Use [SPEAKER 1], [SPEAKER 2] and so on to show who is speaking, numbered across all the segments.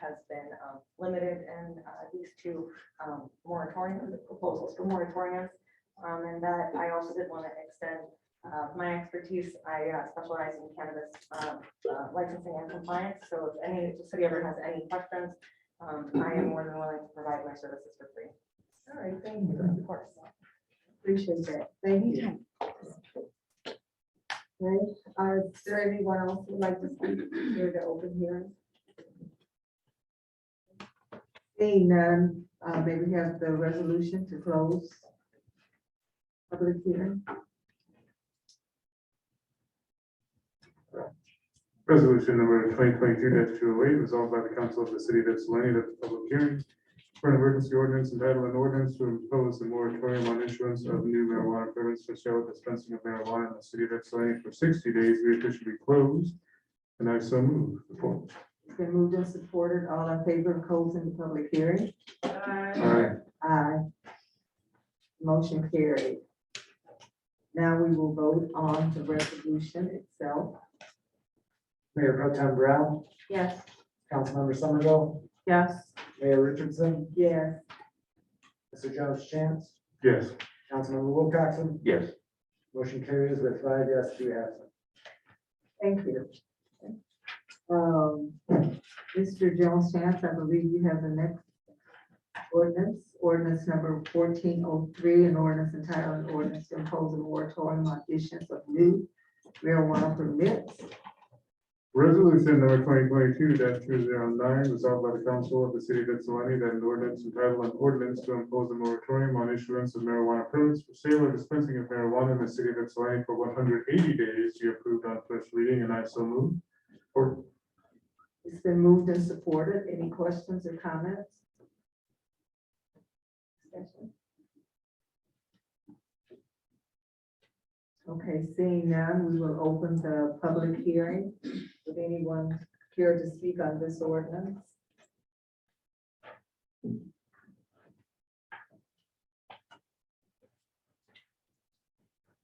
[SPEAKER 1] has been um, limited in uh, these two um, moratorium, the proposals for moratoriums. Um, And that I also did want to extend uh, my expertise. I uh, specialize in cannabis um, uh, licensing and compliance. So if any, if the city ever has any questions, um, I am more than willing to provide my services for free.
[SPEAKER 2] All right, thank you. Of course. Appreciate that. Thank you. Right, uh, is there anyone else who'd like to speak here to open hearing? Seeing none, uh, may we have the resolution to close? Public hearing,
[SPEAKER 3] Resolution number twenty twenty-two two oh eight, resolved by the council of the city of Ypsilanti that the public hearing for an emergency ordinance entitled an ordinance to impose a moratorium on issuance of new marijuana permits for sale and dispensing of marijuana in the city of Ypsilanti for sixty days, be officially closed. And I so move. Support.
[SPEAKER 2] it's been moved and supported, all in favor of closing the public hearing?
[SPEAKER 3] Aye.
[SPEAKER 2] Aye. Motion carried. Now we will vote on the resolution itself.
[SPEAKER 4] Mayor Pro Tem Brown,
[SPEAKER 2] Yes.
[SPEAKER 4] Councilmember Somerville,
[SPEAKER 2] Yes.
[SPEAKER 4] Mayor Richardson,
[SPEAKER 2] Yes.
[SPEAKER 4] Mr. Jones Chance,
[SPEAKER 3] Yes.
[SPEAKER 4] Councilmember Wilcoxen,
[SPEAKER 3] Yes.
[SPEAKER 4] motion carries with five yes, two absent.
[SPEAKER 2] Thank you. Um, Mr. Jones Chance, I believe you have the next ordinance, ordinance number fourteen oh three, an ordinance entitled an ordinance to impose a moratorium on issuance of new marijuana permits.
[SPEAKER 3] Resolution number twenty twenty-two two zero nine, resolved by the council of the city of Ypsilanti that an ordinance entitled an ordinance to impose a moratorium on issuance of marijuana permits for sale or dispensing of marijuana in the city of Ypsilanti for one hundred eighty days, be approved on first reading, and I so move. Or,
[SPEAKER 2] It's been moved and supported. Any questions or comments? Discussion? Okay, seeing none, we will open the public hearing. Would anyone care to speak on this ordinance?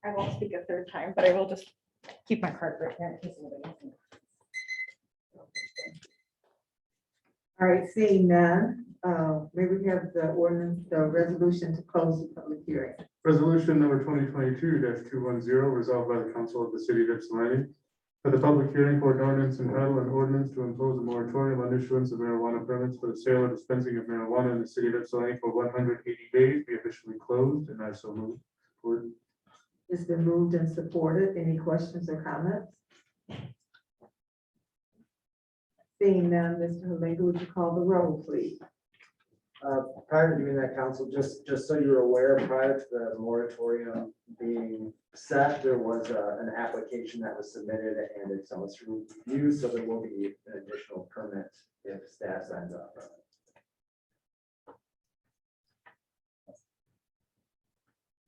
[SPEAKER 1] I won't speak a third time, but I will just keep my card right here in case anybody. has any
[SPEAKER 2] All right, seeing none, uh, may we have the ordinance, the resolution to close the public hearing?
[SPEAKER 3] resolution number twenty twenty-two two one zero, resolved by the council of the city of Ypsilanti that the public hearing for an ordinance entitled an ordinance to impose a moratorium on issuance of marijuana permits for the sale or dispensing of marijuana in the city of Ypsilanti for one hundred eighty days, be officially closed, and I so move. Support.
[SPEAKER 2] It's been moved and supported. Any questions or comments? Seeing none, Mr. Halinga, would you call the roll, please?
[SPEAKER 4] Uh, Prior to doing that, council, just, just so you're aware, prior to the moratorium being set, there was uh, an application that was submitted and it's on its review, so there will be an additional permit if staff signs up.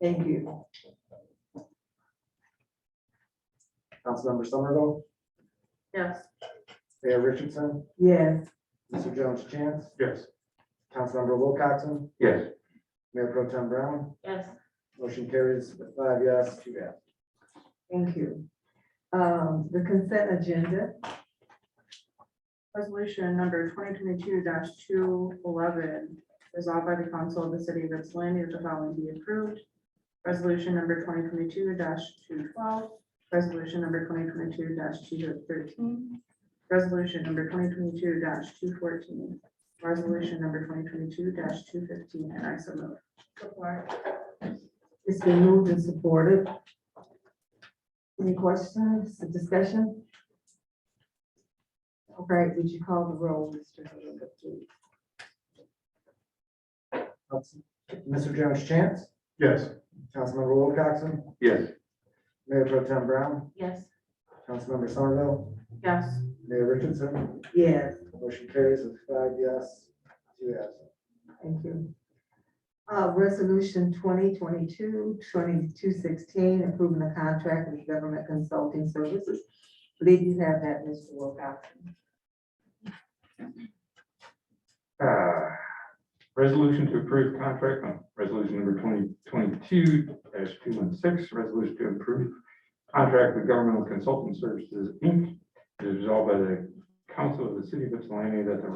[SPEAKER 2] Thank you.
[SPEAKER 4] Councilmember Somerville,
[SPEAKER 2] Yes.
[SPEAKER 4] Mayor Richardson,
[SPEAKER 2] Yes,
[SPEAKER 4] Mr. Jones Chance,
[SPEAKER 3] Yes.
[SPEAKER 4] Councilmember Wilcoxen,
[SPEAKER 3] Yes.
[SPEAKER 4] Mayor Pro Tem Brown,
[SPEAKER 1] Yes.
[SPEAKER 4] Motion carries with five yes, two yes.
[SPEAKER 2] thank you. Um, the consent agenda,
[SPEAKER 5] Resolution number twenty twenty-two two eleven, resolved by the council of the city of Ypsilanti that the following be approved. Resolution number twenty twenty-two two twelve, resolution number twenty twenty-two two thirteen, resolution number twenty twenty-two two fourteen, resolution number twenty twenty-two two fifteen, and I so move.
[SPEAKER 2] it's been moved and supported. Any questions, discussion? All right, would you call the roll, Mr. Halinga, please?
[SPEAKER 4] Council- Mr. Jones Chance,
[SPEAKER 3] Yes.
[SPEAKER 4] Councilmember Wilcoxen,
[SPEAKER 3] Yes.
[SPEAKER 4] Mayor Pro Tem Brown,
[SPEAKER 5] Yes.
[SPEAKER 4] Councilmember Somerville,
[SPEAKER 5] Yes.
[SPEAKER 4] Mayor Richardson,
[SPEAKER 2] Yes.
[SPEAKER 4] motion carries with five yes, two absent.
[SPEAKER 2] Thank you. Uh, resolution 2022 2216 approving a contract with government consulting services. Believe you have that, Mr. Wilcoxen.
[SPEAKER 3] Uh, Resolution to approve contract on resolution number twenty twenty-two two one six, resolution to approve contract with governmental consulting services, Inc. It is resolved by the council of the city of Ypsilanti that the